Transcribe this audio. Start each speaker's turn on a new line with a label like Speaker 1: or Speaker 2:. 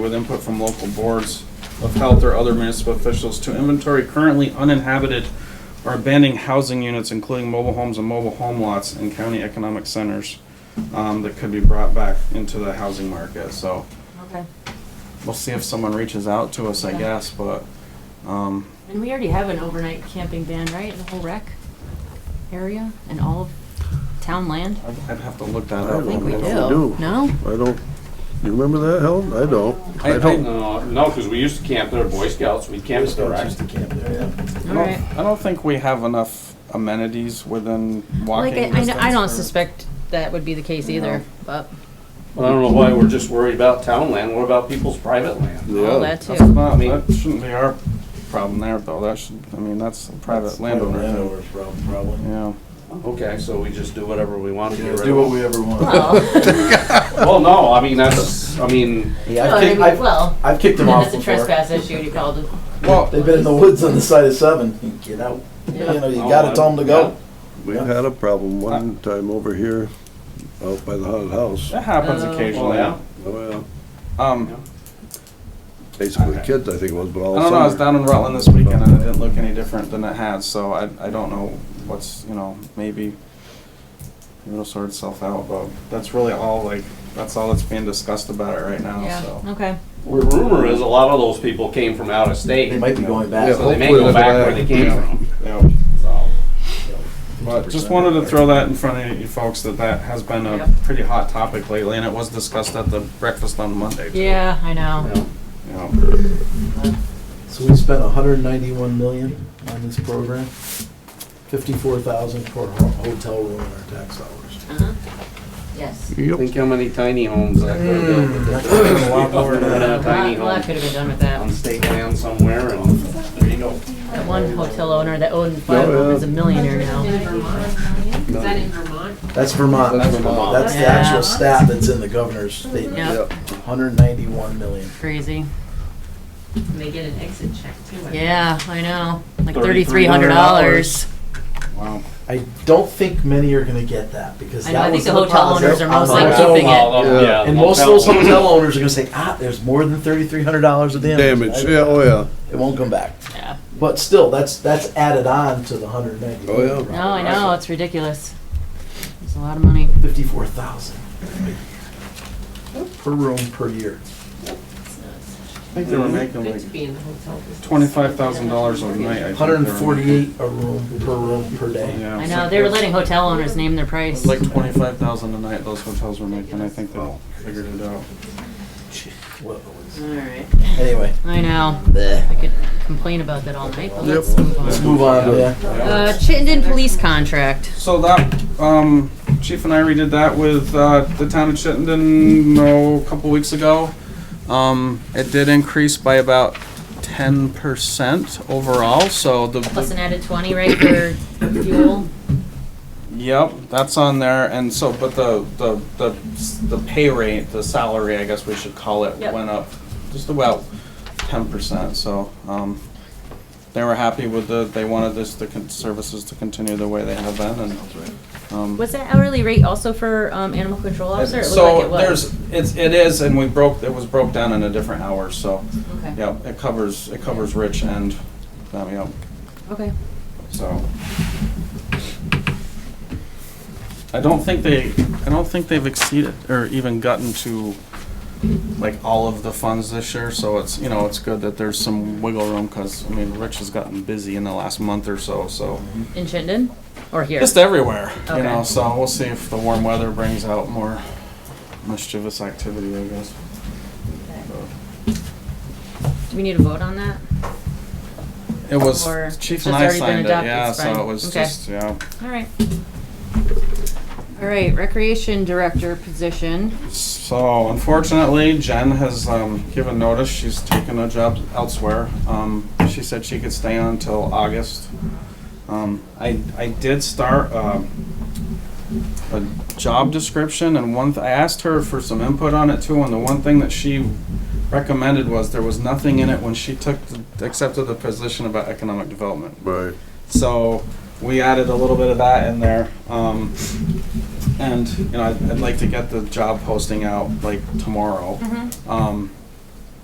Speaker 1: with input from local boards of health or other municipal officials to inventory currently uninhabited or abandoned housing units, including mobile homes and mobile home lots in county economic centers um, that could be brought back into the housing market. So
Speaker 2: Okay,
Speaker 1: we'll see if someone reaches out to us, I
Speaker 2: Yeah.
Speaker 1: guess, but, um,
Speaker 2: and we already have an overnight camping ban, right, in the whole rec area and all of town land?
Speaker 1: I'd I'd have to look that
Speaker 3: I
Speaker 1: up.
Speaker 3: don't
Speaker 2: I think we
Speaker 3: know.
Speaker 2: do.
Speaker 3: do.
Speaker 2: No?
Speaker 3: I don't, you remember that, Helen? I don't. I don't.
Speaker 4: No, no, because we used to camp there, Boy Scouts, we camped there, right?
Speaker 2: All right.
Speaker 1: I don't think we have enough amenities within walking
Speaker 2: Like, I, I
Speaker 1: distance.
Speaker 2: know- I don't
Speaker 1: for-
Speaker 2: suspect that would be the case either, but
Speaker 4: Well, I don't know why we're just worried about town land, what about people's private land?
Speaker 3: Yeah.
Speaker 2: all that
Speaker 1: That's
Speaker 2: too.
Speaker 1: not,
Speaker 4: I mean-
Speaker 1: that shouldn't be our problem there, though. That should, I mean, that's a private landowner.
Speaker 5: Landowner's problem, probably.
Speaker 1: Yeah.
Speaker 4: Okay, so we just do whatever we want to get rid
Speaker 5: Do what
Speaker 4: of.
Speaker 5: we ever want.
Speaker 2: Well,
Speaker 4: Well, no, I mean, that's, I mean,
Speaker 5: Yeah, I've kicked, I've,
Speaker 2: well,
Speaker 5: I've kicked them off before.
Speaker 2: issue, you called it.
Speaker 1: Well,
Speaker 5: They've been in the woods on the side of seven. You Get out. You
Speaker 2: Yeah.
Speaker 5: know, you
Speaker 3: Oh,
Speaker 5: gotta tell them to go.
Speaker 3: We had a problem one time over here, out by the haunted house.
Speaker 1: that happens
Speaker 2: Oh.
Speaker 1: occasionally.
Speaker 4: Well,
Speaker 3: Oh, yeah.
Speaker 1: Um,
Speaker 3: Basically kids, I think it was, but all
Speaker 1: I don't know. I was
Speaker 3: summer.
Speaker 1: down in Rutland this weekend, and it didn't look any different than it had. So I, I don't know what's, you know, maybe it'll sort itself out. But that's really all. Like that's all that's being discussed about it right now.
Speaker 2: Yeah,
Speaker 1: Oh, So
Speaker 2: okay.
Speaker 4: Well, rumor is a lot of those people came from out of state,
Speaker 5: They might be going back.
Speaker 4: so they may go back where they came from,
Speaker 1: yeah.
Speaker 4: so.
Speaker 1: But just wanted to throw that in front of you folks that that has been a
Speaker 2: Yep.
Speaker 1: pretty hot topic lately, and it was discussed at the breakfast on Monday. too.
Speaker 2: Yeah, I know.
Speaker 1: You know.
Speaker 5: So we spent hundred and ninety-one million on this program. Fifty-four thousand for a ho- hotel room and our tax dollars.
Speaker 2: Uh-huh. Yes.
Speaker 3: Yep,
Speaker 4: Think how many tiny homes that could have built with
Speaker 5: Mm.
Speaker 4: their-
Speaker 5: A lot more than
Speaker 4: Built a
Speaker 5: that.
Speaker 4: Tiny
Speaker 2: A lot
Speaker 4: home
Speaker 2: could have been done with
Speaker 4: on
Speaker 2: that.
Speaker 4: state land somewhere and, there you go.
Speaker 2: That one hotel owner that owned five of
Speaker 3: Yeah.
Speaker 2: them is a millionaire now.
Speaker 6: Is that in Vermont?
Speaker 5: That's Vermont.
Speaker 3: That's Vermont.
Speaker 5: That's the
Speaker 2: Yeah.
Speaker 5: actual stat that's in the governor's statement.
Speaker 2: Yep,
Speaker 3: yep.
Speaker 5: Hundred and ninety-one million.
Speaker 2: crazy.
Speaker 6: And they get an exit check too. I think.
Speaker 2: Yeah, I know. Like thirty-three hundred dollars.
Speaker 1: Wow.
Speaker 5: I don't think many are gonna get that because
Speaker 2: I know, I
Speaker 5: that
Speaker 2: think
Speaker 5: was
Speaker 2: the
Speaker 5: the
Speaker 2: hotel
Speaker 5: policy
Speaker 2: owners are
Speaker 5: on
Speaker 2: mostly
Speaker 5: the hotel
Speaker 2: keeping it.
Speaker 5: model.
Speaker 3: Yeah.
Speaker 4: Yeah,
Speaker 5: And most of
Speaker 4: motel
Speaker 5: those hotel owners are gonna say, ah, there's more than thirty-three hundred dollars of damage.
Speaker 3: Damage, yeah, oh, yeah.
Speaker 5: It won't come back.
Speaker 2: Yeah.
Speaker 5: But still, that's, that's added on to the hundred ninety.
Speaker 3: Oh, yeah.
Speaker 2: No, I know, it's ridiculous. It's a lot of money.
Speaker 5: Fifty-four thousand. Per room, per year.
Speaker 1: I think they were making
Speaker 6: Good
Speaker 1: like
Speaker 6: to be in the hotel business.
Speaker 1: twenty-five thousand dollars a night. I think
Speaker 5: Hundred and
Speaker 1: they were
Speaker 5: forty-eight a room, per room, per
Speaker 1: making.
Speaker 5: day.
Speaker 1: Yeah,
Speaker 2: I
Speaker 1: so
Speaker 2: know, they were
Speaker 1: it's-
Speaker 2: letting hotel owners name their price.
Speaker 1: It's like twenty-five thousand a night those hotels were making. I think they figured it out.
Speaker 5: Well,
Speaker 2: Alright,
Speaker 5: Anyway,
Speaker 2: I know. I
Speaker 5: bleh.
Speaker 2: could complain about that all night, but let's
Speaker 3: Yep.
Speaker 2: move
Speaker 5: let's
Speaker 2: on.
Speaker 5: move on, yeah.
Speaker 2: Uh, Chittenden Police Contract.
Speaker 1: So that, um, Chief and I redid that with, uh, the town of Chittenden, no, a couple weeks ago. Um, it did increase by about ten percent overall, so the- the
Speaker 2: Plus an added twenty, right, for fuel?
Speaker 1: Yep, that's on there, and so, but the, the, the, the pay rate, the salary, I guess we should call it,
Speaker 2: Yep.
Speaker 1: went up just about ten percent, so, um, they were happy with the, they wanted this, the con- services to continue the way they have been, and, um.
Speaker 2: Was that hourly rate also for, um, animal control officer? It looked like
Speaker 1: So
Speaker 2: it was.
Speaker 1: there's, it's, it is, and we broke, it was broke down in a different hour, so,
Speaker 2: Okay.
Speaker 1: yeah, it covers, it covers Rich and, um, yeah,
Speaker 2: Okay.
Speaker 1: so. I don't think they, I don't think they've exceeded or even gotten to like all of the funds this year, so it's, you know, it's good that there's some wiggle room, cause I mean, Rich has gotten busy in the last month or so, so.
Speaker 2: In Chittenden or here?
Speaker 1: Just everywhere, you know,
Speaker 2: Okay.
Speaker 1: so we'll see if the warm weather brings out more mischievous activity, I guess.
Speaker 2: Do we need to vote on that?
Speaker 1: It was,
Speaker 2: Or
Speaker 1: Chief
Speaker 2: it's
Speaker 1: and I
Speaker 2: already been
Speaker 1: signed it,
Speaker 2: adopted,
Speaker 1: yeah,
Speaker 2: it's
Speaker 1: so
Speaker 2: fine.
Speaker 1: it was
Speaker 2: Okay.
Speaker 1: just, yeah.
Speaker 2: All right. All right, recreation director position.
Speaker 1: So unfortunately, Jen has um, given notice. She's taken a job elsewhere. Um, she said she could stay on until August. Um, I I did start um a job description, and one th- I asked her for some input on it too. And the one thing that she recommended was there was nothing in it when she took the, accepted the position about economic development.
Speaker 3: Right.
Speaker 1: So we added a little bit of that in there. Um, and, you know, I'd, I'd like to get the job posting out like tomorrow. Um,